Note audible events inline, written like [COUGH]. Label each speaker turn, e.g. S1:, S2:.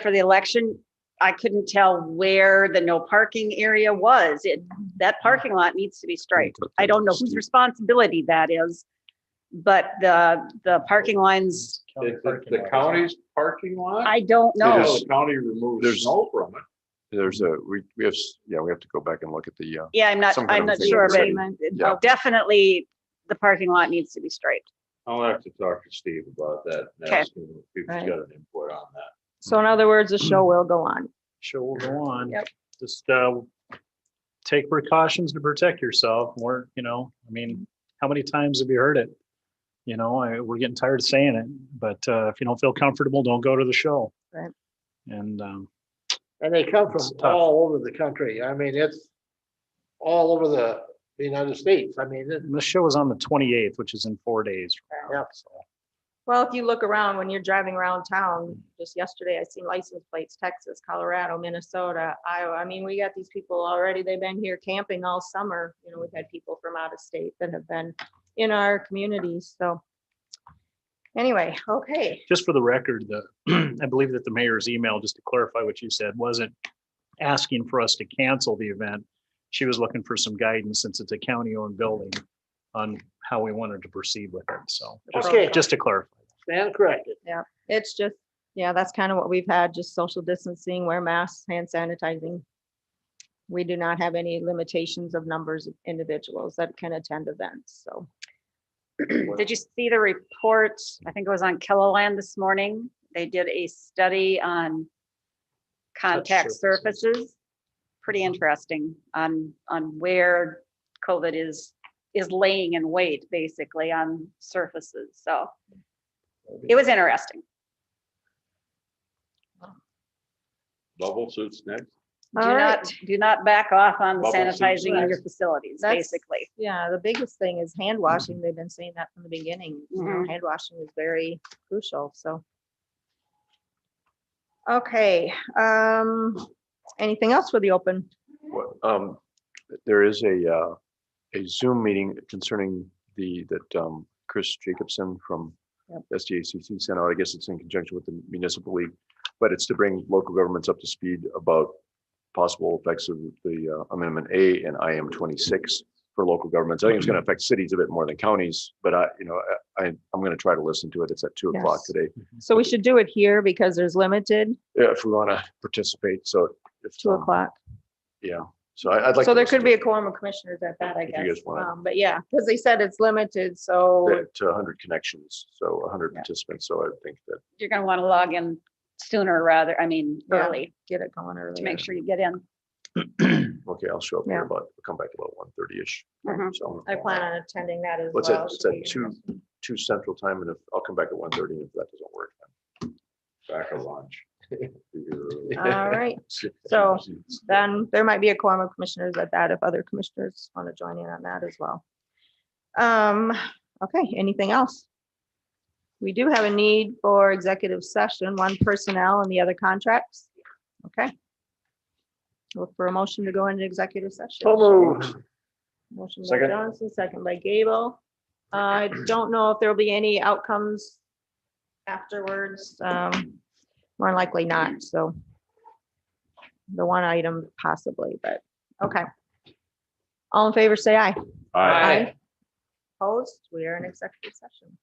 S1: for the election, I couldn't tell where the no parking area was. It, that parking lot needs to be striped. I don't know whose responsibility that is. But the, the parking lines,
S2: The, the- the county's parking lot?
S1: I don't
S2: No,
S1: know.
S2: The county removes
S3: There's-
S2: snow from it.
S3: There's a, we, we have, s- yeah, we have to go back and look at the, uh,
S1: Yeah, I'm not,
S3: Some kind
S1: I'm not
S3: of thing.
S1: sure, but
S3: Yeah.
S1: definitely the parking lot needs to be striped.
S2: I'll have to talk to Steve about that. and
S1: Okay.
S2: ask him if He's got
S4: Right.
S2: an input on that.
S4: So in other words, the show will go on.
S5: show will go on.
S4: Yep.
S5: Just, uh, take precautions to protect yourself more, you know, I mean, how many times have you heard it? You know, I, we're getting tired of saying it, but, uh, if you don't feel comfortable, don't go to the show.
S4: Right.
S5: And, um,
S6: And they come from
S5: It's tough.
S6: all over the country. I mean, it's all over the the United States. I mean, it-
S5: the show is on the twenty-eighth, which is in four days. from now,
S6: Yep.
S5: so.
S4: Well, if you look around, when you're driving around town, just yesterday, I seen license plates, Texas, Colorado, Minnesota, Iowa. I mean, we got these people already, they've been here camping all summer. You know, we've had people from out of state that have been in our communities, so. Anyway, okay,
S5: Just for the record, the, [CLEARS THROAT] I believe that the mayor's email, just to clarify what you said, wasn't asking for us to cancel the event. She was looking for some guidance since it's a county-owned building on how we wanted to proceed with it. So just,
S6: Okay.
S5: just to clarify.
S6: stand corrected.
S4: it's just, yeah, that's kind of what we've had, just social distancing, wear masks, hand sanitizing. We do not have any limitations of numbers of individuals that can attend events, so.
S1: Did you see the report? I think it was on Killaland this morning. They did a study on contact
S5: surfaces.
S1: surfaces. Pretty interesting on, on where COVID is, is laying in wait, basically, on surfaces. So it was interesting.
S2: Bubble suits next.
S1: Do
S4: All right.
S1: not, do not back off on the
S2: Bubble suits
S1: sanitizing of your
S2: next.
S1: facilities,
S4: That's-
S1: basically.
S4: Yeah, the biggest thing is
S3: Mm.
S4: hand washing. They've been saying that from the beginning. You
S3: Mm-hmm.
S4: know, hand washing is very crucial, so. Okay, um, anything else for the open?
S3: what- um, there is a, uh, a Zoom meeting concerning the, that, um, Chris Jacobson from
S4: Yep.
S3: SDACC sent out. I guess it's in conjunction with the municipal league, but it's to bring local governments up to speed about possible effects of the uh, Amendment A and IM twenty-six for local governments. I think it's going to affect cities a bit more than counties, but I, you know, I, I- I'm going to try to listen to it. It's at two o'clock
S4: Yes.
S3: today.
S4: So we should do it here because there's limited
S3: Yeah, if we want to participate, so. if,
S4: two
S3: um,
S4: o'clock.
S3: Yeah, so I- I'd like.
S4: So
S3: to
S4: there
S3: listen
S4: could
S3: to
S4: be a quorum of commissioners at that, I
S3: If you guys
S4: guess.
S3: wanna-
S4: Um, But yeah, because they said it's limited, so
S3: that, To hundred connections, so hundred
S4: Yeah.
S3: participants, so I think that,
S1: You're going to want to log in sooner rather, I mean,
S4: Yeah.
S1: early
S4: get it going
S1: to
S4: early.
S1: make sure you get in.
S3: okay, I'll show up here
S4: Yeah.
S3: about, I'll come back about one thirty-ish.
S4: Mm-hmm.
S1: Mhm.
S3: So
S4: I plan on attending that as well.
S3: What's that, it's
S4: should
S3: at
S4: we-
S3: two, two central time, and if, I'll come back at one thirty, and if that doesn't work.
S2: Back of lunch.
S4: [LAUGHS] All right,
S3: [LAUGHS]
S4: So, then there might be a quorum of commissioners at that if other commissioners want to join in on that as well. Um, okay, anything else? We do have a need for executive session, one personnel and the other contracts. Okay. Look for a motion to go into executive
S6: So
S4: session.
S6: moved.
S4: Motion by
S3: Second.
S4: Johnson, second by Gable. Uh, I don't know if there'll be any outcomes afterwards. Um, more likely not, so. The one item possibly, but, okay. All in favor, say aye.
S2: All right.
S4: Opposed, we are in executive session.